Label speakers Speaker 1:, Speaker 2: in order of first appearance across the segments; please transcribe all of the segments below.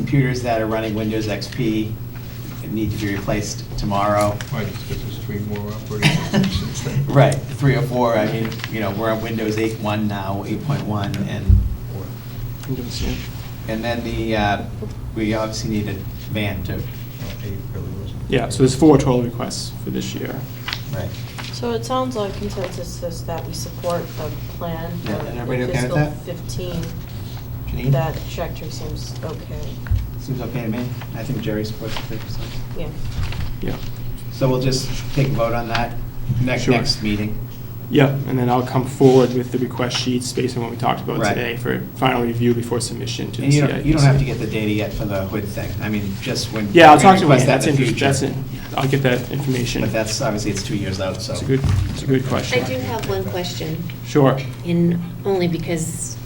Speaker 1: computers that are running Windows XP need to be replaced tomorrow.
Speaker 2: Why, just because there's three more operating systems since then?
Speaker 1: Right, three or four, I mean, you know, we're on Windows 8.1 now, 8.1, and,
Speaker 3: Windows, yeah.
Speaker 1: and then the, uh, we obviously need a van too.
Speaker 2: Well, eight really wasn't.
Speaker 3: Yeah, so there's four total requests for this year.
Speaker 1: Right.
Speaker 4: So it sounds like consensus is that we support the plan for
Speaker 1: Yeah, and everybody okay with
Speaker 4: fiscal
Speaker 1: that?
Speaker 4: fifteen.
Speaker 1: Janine?
Speaker 4: That trajectory seems okay,
Speaker 1: Seems okay to me. I think Jerry supports the fifty percent.
Speaker 4: yeah.
Speaker 3: Yeah.
Speaker 1: So we'll just take a vote on that next,
Speaker 3: Sure.
Speaker 1: next meeting.
Speaker 3: Yep, and then I'll come forward with the request sheets based on what we talked about
Speaker 1: Right.
Speaker 3: today for final review before submission to the
Speaker 1: And you don't, you don't have to
Speaker 3: CIPC.
Speaker 1: get the data yet for the hood thing. I mean, just when.
Speaker 3: Yeah, I'll talk
Speaker 1: we're gonna
Speaker 3: to
Speaker 1: request
Speaker 3: Wayne,
Speaker 1: that
Speaker 3: that's
Speaker 1: in
Speaker 3: in,
Speaker 1: the
Speaker 3: that's
Speaker 1: future.
Speaker 3: in, I'll get that information.
Speaker 1: But that's, obviously, it's two years out, so.
Speaker 3: It's a good, it's a good question.
Speaker 5: I do have one question,
Speaker 3: Sure.
Speaker 5: and only because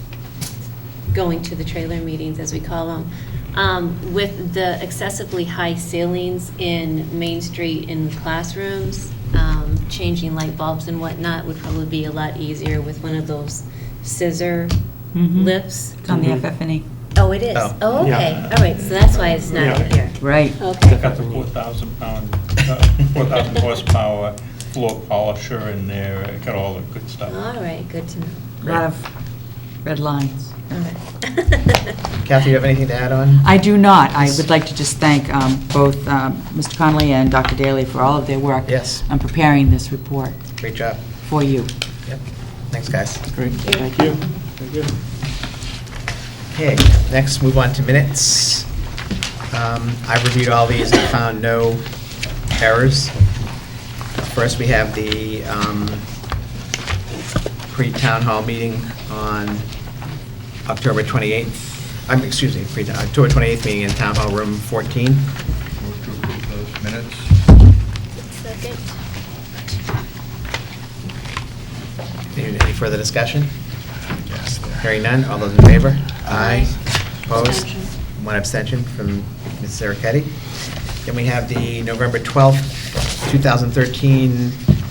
Speaker 5: going to the trailer meetings, as we call them, um, with the excessively high ceilings in Main Street in classrooms, um, changing light bulbs and whatnot would probably be a lot easier with one of those scissor
Speaker 1: Mm-hmm.
Speaker 6: Mm-hmm.
Speaker 7: Mhm.
Speaker 5: lifts.
Speaker 7: It's on the
Speaker 3: Mhm.
Speaker 7: FF&E.
Speaker 5: Oh, it is?
Speaker 2: Oh.
Speaker 5: Oh, okay,
Speaker 3: Yeah.
Speaker 5: all right, so that's why it's not
Speaker 3: Yeah.
Speaker 5: in here.
Speaker 7: Right.
Speaker 5: Okay.
Speaker 2: Got the 4,000 pound, uh, 4,000 horsepower floor polisher in there, uh, got all the good stuff.
Speaker 5: All right, good to know.
Speaker 7: A lot of red lines.
Speaker 5: All right.
Speaker 1: Kathy, you have anything to add on?
Speaker 7: I do not. I would like to just thank um, both um, Mr. Connolly and Dr. Daly for all of their work.
Speaker 1: Yes.
Speaker 7: On preparing this report
Speaker 1: Great job.
Speaker 7: for you.
Speaker 1: Yep. Thanks, guys.
Speaker 3: Great, thank you. Very good.
Speaker 1: Okay, next, move on to minutes. Um, I reviewed all these and found no errors. First, we have the um, pre-town hall meeting on October 28th, I'm, excuse me, pre October 28th meeting in Town Hall Room 14.
Speaker 2: Move to approve those minutes.
Speaker 5: Second.
Speaker 1: Any any further discussion? Hearing none, all those in favor? Aye. Opposed?
Speaker 5: Abstention.
Speaker 1: One abstention from Ms. Saraketti. Then we have the November 12th, 2013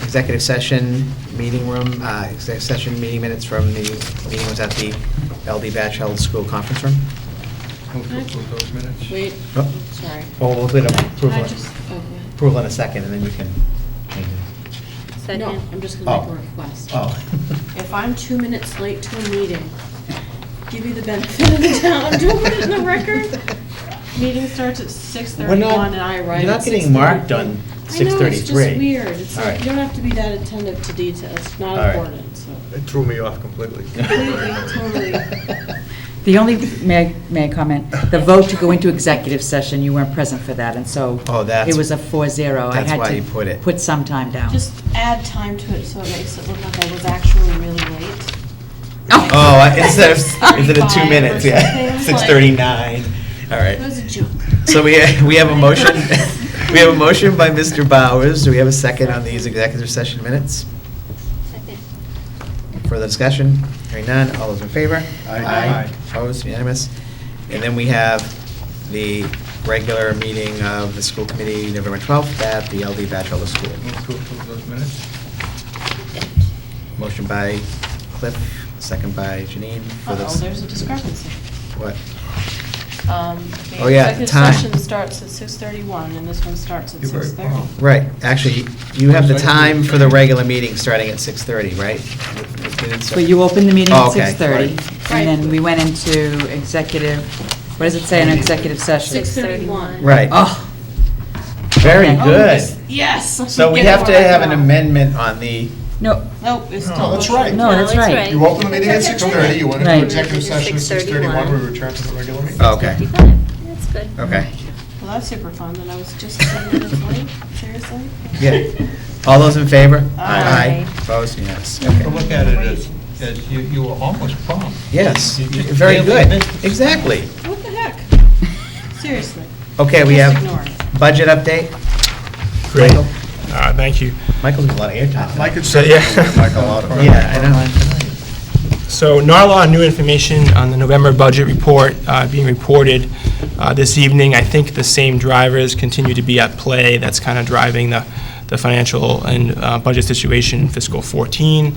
Speaker 1: executive session meeting room, uh, executive session meeting minutes from the, meeting was at the LD Batchel School Conference Room.
Speaker 2: Move to approve those minutes.
Speaker 6: Wait,
Speaker 1: Oh,
Speaker 6: sorry.
Speaker 1: Well, we'll get
Speaker 6: I
Speaker 1: approval,
Speaker 6: just- okay.
Speaker 1: approval in a second, and then you can change it.
Speaker 5: Second.
Speaker 6: No, I'm just gonna make
Speaker 1: Oh.
Speaker 6: a request.
Speaker 1: Oh.
Speaker 6: If I'm two minutes late to a meeting, give me the benefit of the doubt, do put it in the record. Meeting starts at six
Speaker 1: We're not-
Speaker 6: thirty-one and I arrive
Speaker 1: You're not
Speaker 6: at six
Speaker 1: getting marked on
Speaker 6: I know, it's
Speaker 1: 6:33.
Speaker 6: just weird. It's
Speaker 1: All
Speaker 6: like,
Speaker 1: right.
Speaker 6: you don't have to be that attentive to detail. It's
Speaker 1: All
Speaker 6: not
Speaker 1: right.
Speaker 6: important, so.
Speaker 2: It threw me off completely.
Speaker 6: Completely,
Speaker 1: totally.
Speaker 7: The only, may I, may I comment? The vote to go into executive session, you weren't present for that, and so.
Speaker 1: Oh, that's-
Speaker 7: It was a 4-0.
Speaker 1: that's why you put
Speaker 7: I had
Speaker 1: it.
Speaker 7: to put some time down.
Speaker 6: Just add time to it so it makes it look like I was actually really late.
Speaker 7: Oh.
Speaker 1: Oh, I- instead of, instead of two
Speaker 6: 6:35
Speaker 1: minutes,
Speaker 6: or
Speaker 1: yeah,
Speaker 6: something,
Speaker 1: six
Speaker 6: like-
Speaker 1: thirty-nine, all
Speaker 6: It was
Speaker 1: right.
Speaker 6: a joke.
Speaker 1: So we, we have a motion, we have a motion by Mr. Bowers, do we have a second on these executive session minutes?
Speaker 5: Second.
Speaker 1: Further discussion, hearing none, all those in favor?
Speaker 2: Aye. Aye.
Speaker 1: Opposed, unanimous? And then we have the regular meeting of the school committee, November twelfth, at the LD Bachelor School.
Speaker 2: Move to approve those minutes.
Speaker 1: Motion by Cliff, second by Janine. Further
Speaker 6: Uh-oh,
Speaker 1: dis-
Speaker 6: there's a discrepancy.
Speaker 1: What?
Speaker 6: Um,
Speaker 1: Oh, yeah, the
Speaker 6: The
Speaker 1: time.
Speaker 6: executive session starts at 6:31, and this one starts at
Speaker 2: You're very
Speaker 6: 6:30.
Speaker 2: prompt.
Speaker 1: Right, actually, you have the time for the regular meeting starting at 6:30, right?
Speaker 7: But you opened the meeting at
Speaker 1: Oh, Okay, right.
Speaker 7: 6:30,
Speaker 6: Right.
Speaker 7: and then we went into executive, what does it say in executive session?
Speaker 6: 6:31.
Speaker 1: Right,
Speaker 7: Oh,
Speaker 1: very
Speaker 7: okay. Oh,
Speaker 1: good.
Speaker 6: Yes.
Speaker 1: So we have to have an amendment on the,
Speaker 7: no,
Speaker 6: Nope, it's
Speaker 8: No,
Speaker 6: still.
Speaker 8: that's right.
Speaker 7: No, Oh, that's right.
Speaker 8: You open the meeting at 6:30, you went
Speaker 7: Right.
Speaker 8: into executive session at 6:31, we
Speaker 5: 6:31.
Speaker 8: return to the regular meeting.
Speaker 1: Oh, okay.
Speaker 5: 55. That's good.
Speaker 1: okay,
Speaker 6: Well, that's super fun, and I was just 10 minutes late, seriously?
Speaker 1: yeah. All those in favor?
Speaker 6: Aye.
Speaker 1: Opposed, yes,
Speaker 2: You have to
Speaker 1: okay.
Speaker 2: look at it as, as you, you were almost prompt.
Speaker 1: Yes,
Speaker 2: You just
Speaker 1: very
Speaker 2: barely
Speaker 1: good,
Speaker 2: missed it.
Speaker 1: exactly.
Speaker 6: What the heck? Seriously.
Speaker 1: Okay, we
Speaker 6: Just
Speaker 1: have
Speaker 6: ignore it.
Speaker 1: budget update.
Speaker 8: Great.
Speaker 1: Michael-
Speaker 8: Uh, Thank you.
Speaker 1: Michael's got a lot of airtime.
Speaker 8: Mike
Speaker 1: tonight.
Speaker 8: had said, yeah.
Speaker 1: Yeah, I know.
Speaker 8: So NARLA, new information on the November budget report uh, being reported uh, this evening. I think the same drivers continue to be at play. That's kind of driving the the financial and uh, budget situation in fiscal 14.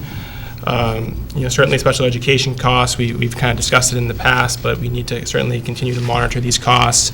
Speaker 8: Um, You know, certainly special education costs, we- we've kind of discussed it in the past, but we need to certainly continue to monitor these costs.